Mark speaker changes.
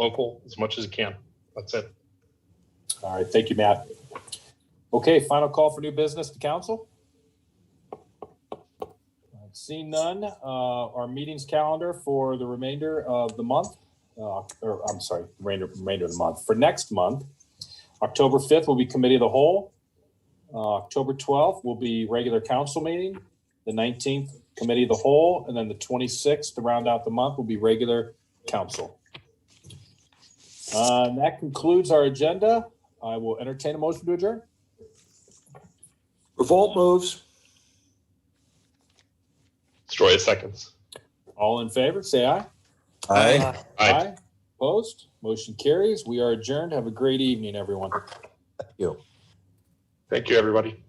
Speaker 1: local as much as you can. That's it.
Speaker 2: All right, thank you, Matt. Okay, final call for new business to council. I've seen none. Uh, Our meetings calendar for the remainder of the month, uh, or I'm sorry, remainder, remainder of the month, for next month, October 5th will be committee of the whole. Uh, October 12th will be regular council meeting. The 19th, committee of the whole, and then the 26th, to round out the month, will be regular council. Uh, and That concludes our agenda. I will entertain a motion to adjourn.
Speaker 3: Revolt moves.
Speaker 1: Story of seconds.
Speaker 2: All in favor, say aye.
Speaker 3: Aye.
Speaker 1: Aye.
Speaker 2: Opposed? Motion carries. We are adjourned. Have a great evening, everyone.
Speaker 1: Thank you, everybody.